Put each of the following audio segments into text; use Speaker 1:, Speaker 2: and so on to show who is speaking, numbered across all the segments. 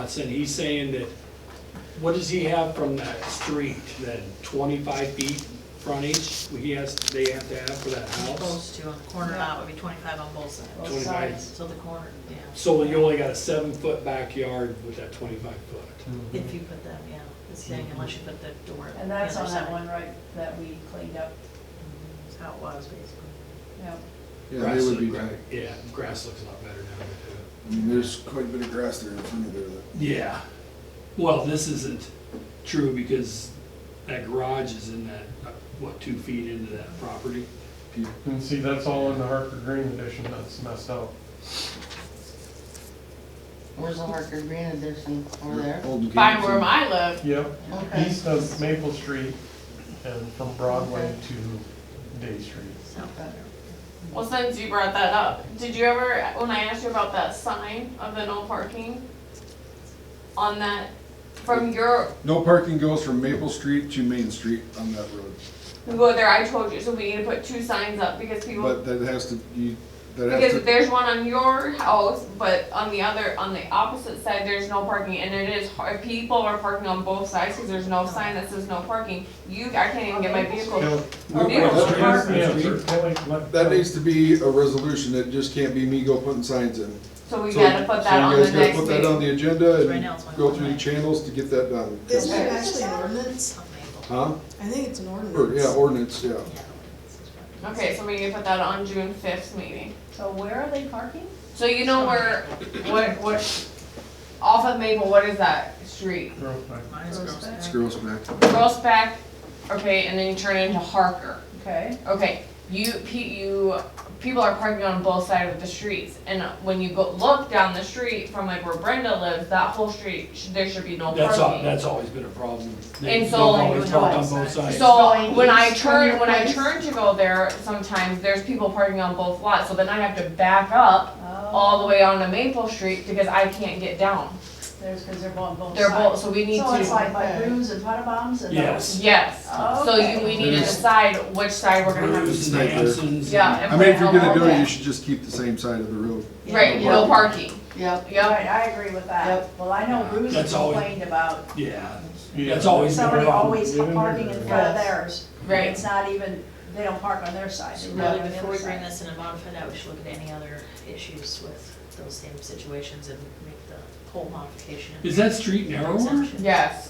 Speaker 1: And he's saying that, what does he have from that street, that twenty-five feet frontage he has, they have to have for that house?
Speaker 2: Those two on the corner lot would be twenty-five on both sides.
Speaker 1: Twenty-five.
Speaker 2: So the corner, yeah,
Speaker 1: So you only got a seven-foot backyard with that twenty-five foot.
Speaker 2: if you put them, yeah, it's saying
Speaker 3: Mm-hmm.
Speaker 2: unless you put the door.
Speaker 4: And that's
Speaker 2: the other
Speaker 4: on that
Speaker 2: side.
Speaker 4: one right, that we cleaned up,
Speaker 2: That's how it was basically.
Speaker 4: yeah.
Speaker 5: Yeah,
Speaker 1: Grass
Speaker 5: they would be
Speaker 1: look-
Speaker 5: back.
Speaker 1: Yeah, grass looks a lot better now than it
Speaker 5: I mean, there's quite a bit of grass there in front of there. that-
Speaker 1: did. Yeah, well, this isn't true because that garage is in that, uh, what, two feet into that property?
Speaker 6: And see, that's all in the Harper Green edition that's messed up.
Speaker 7: Where's the Harker Green edition over there?
Speaker 5: Old gates
Speaker 3: By where
Speaker 5: and-
Speaker 3: I live,
Speaker 6: Yep,
Speaker 7: Okay.
Speaker 6: east of Maple Street and from Broadway to Day Street.
Speaker 3: well, since you brought that up, did you ever, when I asked you about that sign of the no parking? On that, from your,
Speaker 5: No parking goes from Maple Street to Main Street on that road,
Speaker 3: we go there, I told you, so we need to put two signs up because people,
Speaker 5: but that has to, you, that has
Speaker 3: because
Speaker 5: to,
Speaker 3: there's one on your house, but on the other, on the opposite side, there's no parking, and it is, hard- people are parking on both sides, cause there's no sign that says no parking. You, I can't even get my vehicle,
Speaker 6: Kelly-
Speaker 3: our vehicle
Speaker 5: That's
Speaker 3: to
Speaker 5: right.
Speaker 3: park.
Speaker 6: Kelly- Kelly, let-
Speaker 5: that needs to be a resolution, it just can't be me go putting signs in.
Speaker 3: so we
Speaker 5: So-
Speaker 3: gotta put that on the
Speaker 5: So you guys
Speaker 3: next
Speaker 5: gotta put that on
Speaker 3: meeting.
Speaker 5: the agenda
Speaker 2: Right now it's
Speaker 5: and
Speaker 2: one
Speaker 5: go through
Speaker 2: way.
Speaker 5: the channels to get that done.
Speaker 8: Is
Speaker 3: Okay.
Speaker 8: that actually an ordinance?
Speaker 2: Some maple.
Speaker 5: Huh?
Speaker 8: I think it's an
Speaker 5: Or,
Speaker 8: ordinance.
Speaker 5: yeah, ordinance, yeah.
Speaker 2: Yeah, this is what-
Speaker 3: Okay, so we need to put that on June fifth meeting.
Speaker 4: So where are they parking?
Speaker 3: So you know where, what, what, off of Maple, what is that street?
Speaker 6: Real quick.
Speaker 2: Mine is gross.
Speaker 4: Gross.
Speaker 5: Screws back.
Speaker 3: Girls back, okay, and then you turn into Harker.
Speaker 4: Okay,
Speaker 3: Okay, you, pe- you, people are parking on both sides of the streets. And when you go, look down the street from like where Brenda lives, that whole street, sh- there should be no
Speaker 1: That's, al-
Speaker 3: parking.
Speaker 1: that's always been a problem.
Speaker 3: And
Speaker 1: They've
Speaker 3: so-
Speaker 1: always parked on both sides.
Speaker 3: So
Speaker 7: Going
Speaker 3: when I
Speaker 7: east from
Speaker 3: turn,
Speaker 7: your
Speaker 3: when I
Speaker 7: place.
Speaker 3: turn to go there, sometimes there's people parking on both lots, so then I have to back up
Speaker 4: Oh,
Speaker 3: all the way onto Maple Street because I can't get down.
Speaker 4: there's, because they're on both sides.
Speaker 3: They're both, so we need to.
Speaker 4: So it's like by Brews and Puttabom's and
Speaker 1: Yes.
Speaker 4: those?
Speaker 3: Yes, so you, we
Speaker 4: Okay.
Speaker 3: need to decide which side we're gonna have,
Speaker 1: Bruce
Speaker 5: Right
Speaker 1: and
Speaker 5: there.
Speaker 1: Hanson's.
Speaker 3: yeah. and
Speaker 5: I mean, if
Speaker 3: put it
Speaker 5: you're
Speaker 3: on
Speaker 5: gonna
Speaker 3: all
Speaker 5: do it, you
Speaker 3: that.
Speaker 5: should just keep the same side of the road.
Speaker 3: Right, no parking,
Speaker 7: Yep.
Speaker 3: yep,
Speaker 4: Right, I agree with that.
Speaker 7: Yep.
Speaker 4: Well, I know Brews
Speaker 1: That's always-
Speaker 4: complained about
Speaker 1: Yeah,
Speaker 6: Yeah.
Speaker 1: that's always been a
Speaker 4: somebody
Speaker 1: problem.
Speaker 4: always
Speaker 6: Get in
Speaker 4: parking in
Speaker 6: there.
Speaker 4: front of theirs. It's
Speaker 3: right,
Speaker 4: not even, they don't park on their side, they
Speaker 2: So
Speaker 4: park
Speaker 2: really,
Speaker 4: on the
Speaker 2: before we
Speaker 4: other
Speaker 2: bring
Speaker 4: side.
Speaker 2: this in and modify that, we should look at any other issues with those same situations and make the whole modification. and
Speaker 1: Is that street narrower?
Speaker 2: exemption.
Speaker 3: yes,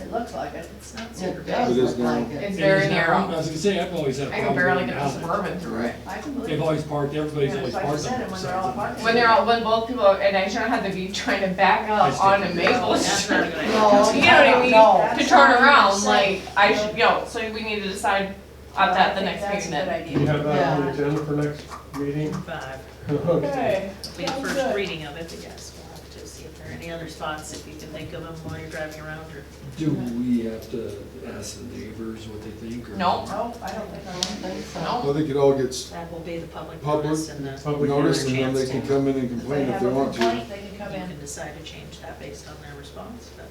Speaker 4: It looks like it.
Speaker 2: It's not super
Speaker 7: It
Speaker 2: big.
Speaker 7: does
Speaker 5: It is
Speaker 7: look like
Speaker 5: now.
Speaker 7: it.
Speaker 3: it's
Speaker 1: It
Speaker 3: very
Speaker 1: is narrow. I
Speaker 3: narrow.
Speaker 1: was gonna say, I've always had a
Speaker 3: I can
Speaker 1: problem
Speaker 3: barely
Speaker 1: going
Speaker 3: get the
Speaker 1: down there.
Speaker 3: suburban through it.
Speaker 4: I can believe
Speaker 1: They've
Speaker 4: it.
Speaker 1: always parked, everybody's
Speaker 4: Yeah,
Speaker 1: always
Speaker 4: like you
Speaker 1: parked
Speaker 4: said,
Speaker 1: on both
Speaker 4: when they're all
Speaker 1: sides.
Speaker 4: parked.
Speaker 3: When they're all, when both people, are- and I shouldn't have to be trying to back
Speaker 1: I
Speaker 3: up
Speaker 1: see.
Speaker 3: onto Maple
Speaker 2: That's not a
Speaker 3: Street
Speaker 2: good idea.
Speaker 7: No.
Speaker 3: You know what I mean?
Speaker 7: No.
Speaker 3: to turn around,
Speaker 4: That's not
Speaker 3: like, I should,
Speaker 4: what
Speaker 3: yo, so we need to decide on that the next meeting then.
Speaker 4: I think
Speaker 6: You
Speaker 4: that's a good idea.
Speaker 6: have that on the agenda for next meeting?
Speaker 2: Five,
Speaker 6: Okay.
Speaker 2: be the first reading of it, I guess, we'll have to see if there are any other spots, if you can think of them while you're driving around, or
Speaker 1: Do we have to ask the neighbors what they think or?
Speaker 3: No.
Speaker 4: No, I don't think I
Speaker 7: I
Speaker 4: want that.
Speaker 7: think so.
Speaker 3: No,
Speaker 5: I think it all gets
Speaker 2: that will be the public
Speaker 5: Public.
Speaker 2: notice and the,
Speaker 6: Public
Speaker 5: noticed and
Speaker 6: hearing.
Speaker 5: then they can come in and complain if
Speaker 4: have
Speaker 5: they
Speaker 4: a
Speaker 5: want to.
Speaker 4: complaint, They can come
Speaker 2: you
Speaker 4: in.
Speaker 2: can decide to change that based on their response, but,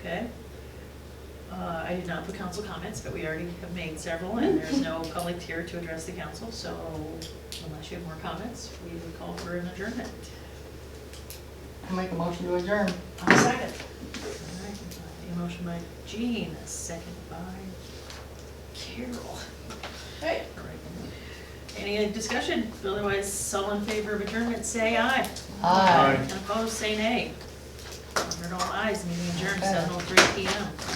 Speaker 2: okay? Uh, I did not put council comments, but we already have made several, and there's no public here to address the council, so unless you have more comments, we would call for an adjournment.
Speaker 7: I Make a motion to adjourn.
Speaker 2: I'll second. A motion by Jean, a second by Carol.
Speaker 4: Hey.
Speaker 2: All right. Any discussion? Otherwise, all in favor of adjournment, say aye.
Speaker 7: Aye.
Speaker 6: Aye.
Speaker 2: And opposed, say nay. Heard all ayes, meeting adjourned, seven oh three P M.